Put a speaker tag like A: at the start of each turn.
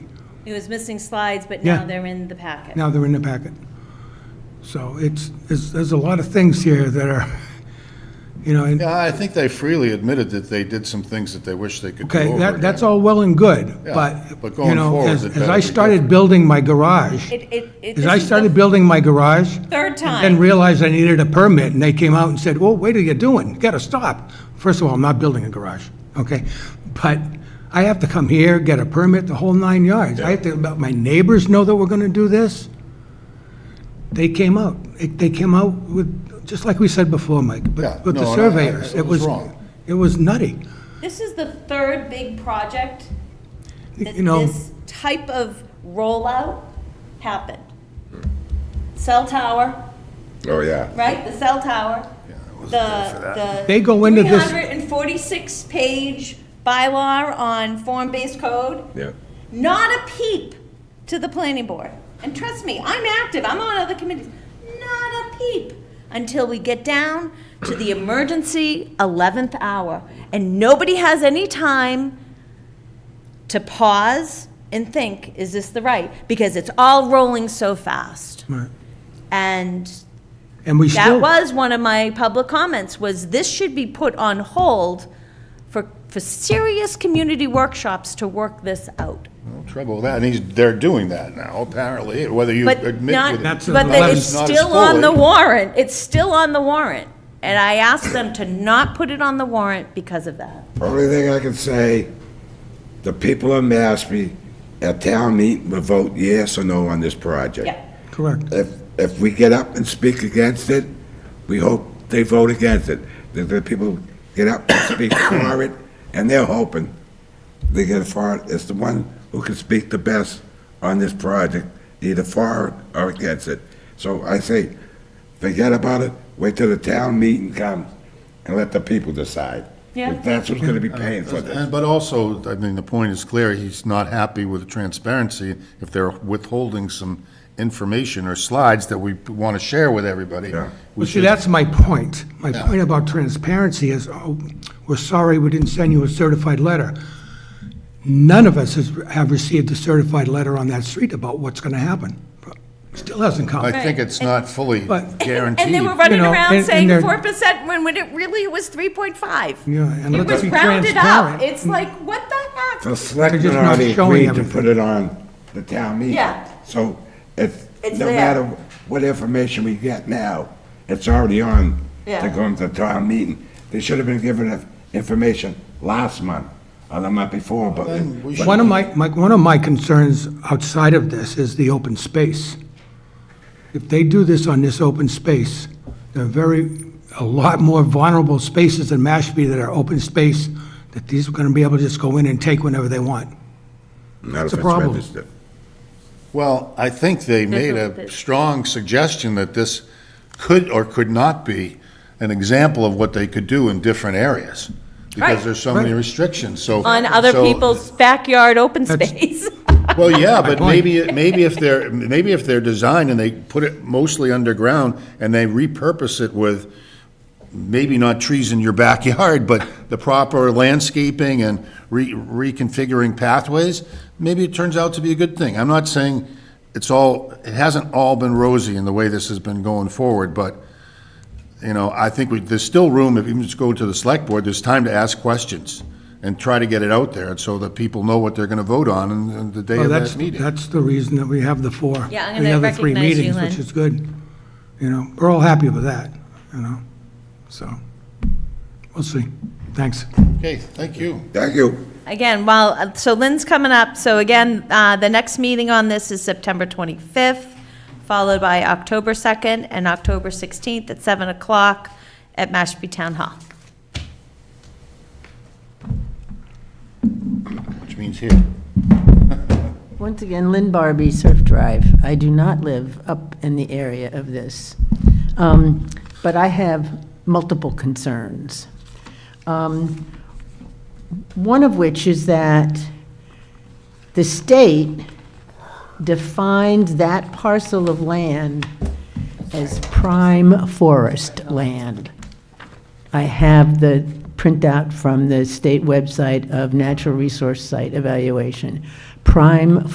A: It was missing slides, but now
B: Yeah.
A: they're in the packet.
B: Now they're in the packet. So it's, there's, there's a lot of things here that are, you know, and,
C: Yeah, I think they freely admitted that they did some things that they wish they could do
B: okay,
C: over
B: that, that's
C: again.
B: all well and good,
C: Yeah,
B: but,
C: but
B: you
C: going
B: know,
C: forward,
B: as,
C: it
B: as
C: better
B: I
C: be
B: started
C: different.
B: building my garage,
A: It, it, it.
B: as
A: this
B: I
A: is the
B: started building my garage,
A: Third
B: and
A: time.
B: realized I needed a permit, and they came out and said, "Well, wait till you're doing, you gotta stop." First of all, I'm not building a garage, okay? But I have to come here, get a permit, the whole nine yards. I have to let my neighbors know that we're gonna do this. They came out, It- they came out with, just like we said before, Mike,
C: Yeah,
B: but with
C: no,
B: the
C: and I-
B: surveyors.
C: I- it was wrong.
B: It was nutty,
A: This is the third big project that
B: you know,
A: this type of rollout happened. Cell tower,
D: Oh, yeah.
A: right? The cell tower. The, the.
B: They go into this-
A: Three hundred and forty-six page bylaw on form-based code.
D: Yeah.
A: Not a peep to the planning board. And trust me, I'm active, I'm on other committees. Not a peep until we get down to the emergency 11th hour. And nobody has any time to pause and think, is this the right? Because it's all rolling so fast.
B: Right.
A: And
B: and we
A: that
B: still.
A: was one of my public comments, was this should be put on hold for, for serious community workshops to work this out.
C: No Trouble with that, and he's, they're doing that now, apparently, whether you admit
A: But
C: with it.
A: not,
C: or
B: That's
A: but
B: a-
C: not,
A: that
B: that's
A: it's
C: not as
A: still on the
C: fully.
A: warrant, it's still on the warrant. And I asked them to not put it on the warrant because of that.
D: Only thing I can say, the people of Mashpee at town meeting will vote yes or no on this project.
A: Yeah.
B: Correct.
D: If, if we get up and speak against it, we hope they vote against it. That the people get up and speak for it, and they're hoping they get for it. It's the one who can speak the best on this project, either for it or against it. So I say, forget about it, wait till the town meeting comes, and let the people decide.
A: Yeah.
D: If That's who's gonna be paying for this.
C: And- But also, I mean, the point is clear, he's not happy with the transparency if they're withholding some information or slides that we want to share with everybody.
D: Yeah.
C: We
B: Well, see,
C: should-
B: that's my point. My point about transparency is, oh, we're sorry we didn't send you a certified letter. None of us has, have received a certified letter on that street about what's gonna happen. Still hasn't
C: I
B: come.
C: think
A: Right.
C: it's not fully
B: But-
C: guaranteed.
A: And they were running
B: You know, and-
A: around
B: and
A: saying
B: they're-
A: four percent when, when it really was three point five.
B: Yeah, and
A: It
B: let's
A: was
B: be
A: rounded up.
B: transparent.
A: It's like, what the
D: The
A: heck?
D: selectmen
B: They're just not
D: already
B: showing
D: agreed to
B: everything.
D: put it on the town meeting.
A: Yeah.
D: So it's,
A: It's
D: no
A: there.
D: matter what information we get now, it's already on
A: Yeah.
D: to go into town meeting. They should have been given that information last month, or the month before, but.
C: Then we
D: but-
B: One of my, my, one of my concerns outside of this is the open space. If they do this on this open space, there are very, a lot more vulnerable spaces in Mashpee that are open space, that these are gonna be able to just go in and take whenever they want.
D: Not if
B: a
D: it's
B: problem.
D: registered.
C: Well, I think they made
A: what it
C: a
A: is.
C: strong suggestion that this could or could not be an example of what they could do in different areas,
A: Right.
C: because there's so many restrictions, so.
A: On other
C: so-
A: people's backyard open
B: That's-
A: space.
C: Well, yeah, but
B: point.
C: maybe, it- maybe if they're, maybe if they're designed and they put it mostly underground, and they repurpose it with maybe not trees in your backyard, but the proper landscaping and re- reconfiguring pathways, maybe it turns out to be a good thing. I'm not saying it's all, it hasn't all been rosy in the way this has been going forward, but, you know, I think we, there's still room, if you just go to the select board, there's time to ask questions and try to get it out there so that people know what they're gonna vote on in- in the day
B: Well,
C: of
B: Oh, that's,
C: that meeting.
B: that's the reason that we have the four.
A: Yeah, I'm gonna
B: The other three
A: recognize you,
B: meetings,
A: Lynn.
B: which is good. You know, we're all happy with that, you know, so, we'll see. Thanks.
C: Okay, thank you.
D: Thank you.
A: Again, well, uh, so Lynn's coming up, so again, uh, the next meeting on this is September 25th, followed by October 2nd and October 16th at 7 o'clock at Mashpee Town Hall.
C: Which means here.
E: Once again, Lynn Barbie, Surf Drive. I do not live up in the area of this, Um, but I have multiple concerns. Um, One of which is that the state defines that parcel of land as prime forest land. I have the printout from the state website of Natural Resource Site Evaluation. Prime